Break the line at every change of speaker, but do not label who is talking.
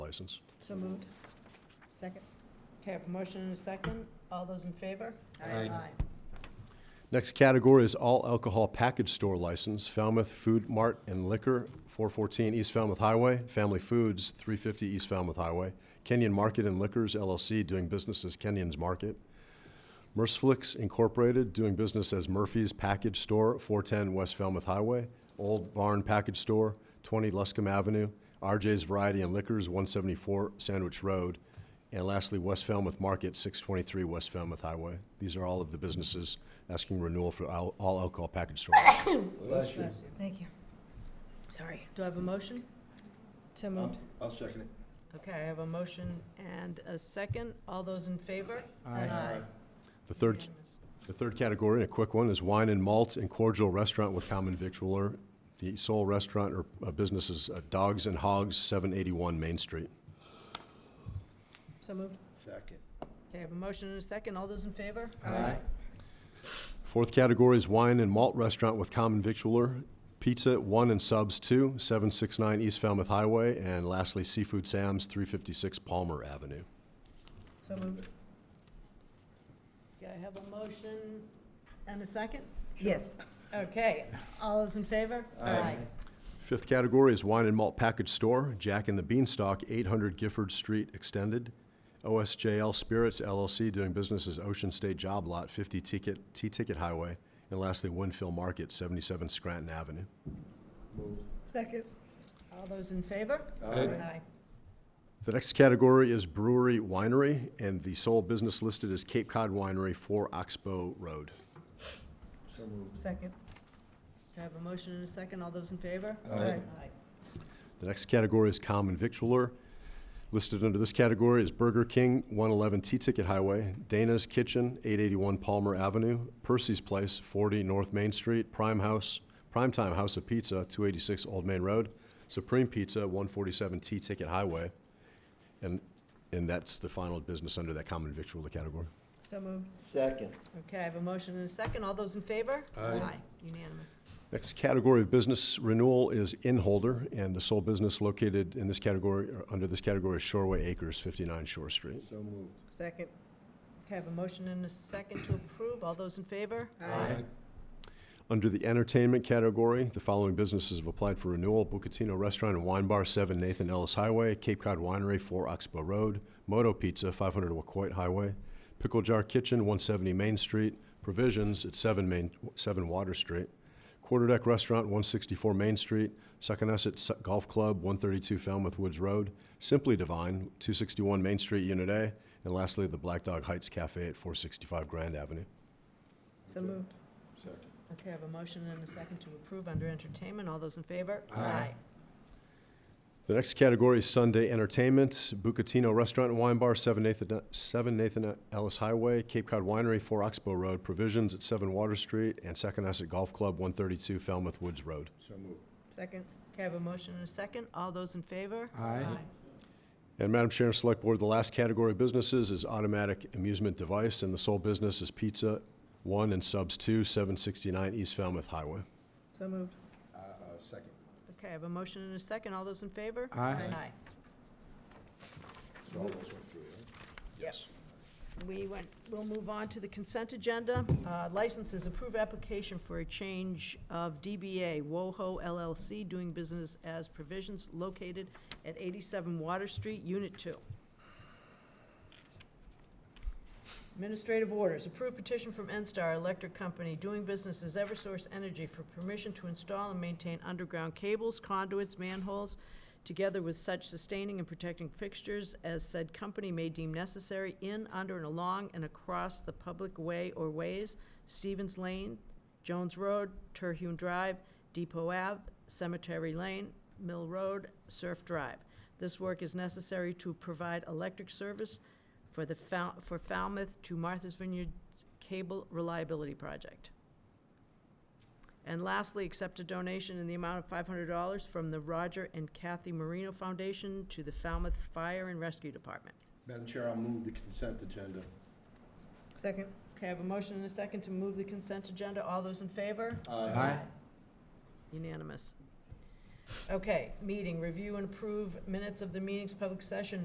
license.
So moved. Second?
Okay, I have a motion and a second. All those in favor?
Aye.
Next category is all alcohol package store license, Falmouth Food Mart and Liquor, 414 East Falmouth Highway, Family Foods, 350 East Falmouth Highway, Kenyon Market and Liquors LLC, doing business as Kenyon's Market, Merciflix Incorporated, doing business as Murphy's Package Store, 410 West Falmouth Highway, Old Barn Package Store, 20 Luscombe Avenue, RJ's Variety and Liquors, 174 Sandwich Road, and lastly, West Falmouth Market, 623 West Falmouth Highway. These are all of the businesses asking renewal for al- all alcohol package stores.
Bless you.
Bless you. Thank you. Sorry.
Do I have a motion?
So moved.
I'll second it.
Okay, I have a motion and a second. All those in favor?
Oh,
The third,
Unanimous.
the third category, and a quick one, is wine and malt and cordial restaurant with common victualler. The sole restaurant or uh, business is uh, Dogs and Hogs, 781 Main Street.
So moved.
Second.
Okay, I have a motion and a second. All those in favor?
Aye.
Fourth category is wine and malt restaurant with common victualler, pizza one and subs two, seven six nine East Falmouth Highway, and lastly Seafood Sam's, three fifty six Palmer Avenue.
So moved.
Do I have a motion and a second?
Yes.
Okay, all those in favor? Aye.
Fifth category is wine and malt package store, Jack and the Beanstalk, eight hundred Gifford Street Extended, OSJL Spirits LLC doing business as Ocean State Job Lot, fifty ticket T Ticket Highway, and lastly Winfield Market, seventy seven Scranton Avenue.
Second?
All those in favor? Aye.
The next category is brewery winery, and the sole business listed is Cape Cod Winery, 4 Oxbow Road.
So moved.
Second.
Do I have a motion and a second? All those in favor?
Aye.
The next category is common victualler. Listed under this category is Burger King, 111 T-Ticket Highway, Dana's Kitchen, 881 Palmer Avenue, Percy's Place, 40 North Main Street, Prime House, Primetime House of Pizza, 286 Old Main Road, Supreme Pizza, 147 T-Ticket Highway. And, and that's the final business under that common victualler category.
So moved.
Second.
Okay, I have a motion and a second. All those in favor? Aye. Unanimous.
Next category of business renewal is Inholder, and the sole business located in this category, or under this category, is Shoreway Acres, 59 Shore Street.
So moved.
Second.
Okay, I have a motion and a second to approve. All those in favor?
Under the entertainment category, the following businesses have applied for renewal: Bucatino Restaurant and Wine Bar, 7 Nathan Ellis Highway, Cape Cod Winery, 4 Oxbow Road, Moto Pizza, 500 Wacoit Highway, Pickle Jar Kitchen, 170 Main Street, Provisions at 7 Main, 7 Water Street, Quarterdeck Restaurant, 164 Main Street, Succonesset Su- Golf Club, 132 Falmouth Woods Road, Simply Divine, 261 Main Street, Unit A, and lastly, the Black Dog Heights Cafe at 465 Grand Avenue.
So moved.
Second.
Okay, I have a motion and a second to approve under entertainment. All those in favor?
Aye.
The next category is Sunday entertainment, Bucatino Restaurant and Wine Bar, 7 Nathan, 7 Nathan Ellis Highway, Cape Cod Winery, 4 Oxbow Road, Provisions at 7 Water Street, and Saconaset Golf Club, 132 Falmouth Woods Road.
So moved.
Second?
Okay, I have a motion and a second. All those in favor?
Aye.
And Madam Chair and Select Board, the last category of businesses is automatic amusement device, and the sole business is Pizza 1 and Subs 2, 769 East Falmouth Highway.
So moved.
Uh, uh, second.
Okay, I have a motion and a second. All those in favor? Aye.
So all those went through, right?
Yes. We went, we'll move on to the consent agenda. Uh, Licenses, approve application for a change of DBA WOHO LLC, doing business as provisions located at 87 Water Street, Unit 2. Administrative orders, approve petition from NSTAR Electric Company, doing business as Eversource Energy, for permission to install and maintain underground cables, conduits, manholes, together with such sustaining and protecting fixtures as said company may deem necessary in, under, and along and across the public way or ways, Stevens Lane, Jones Road, Terhune Drive, Depot Ave, Cemetery Lane, Mill Road, Surf Drive. This work is necessary to provide electric service for the Fal- for Falmouth to Martha's Vineyard's Cable Reliability Project. And lastly, accept a donation in the amount of five hundred dollars from the Roger and Kathy Marino Foundation to the Falmouth Fire and Rescue Department.
Madam Chair, I'll move the consent agenda.
Second?
Okay, I have a motion and a second to move the consent agenda. All those in favor?
Aye.
Unanimous. Okay, meeting, review and approve minutes of the meetings, public session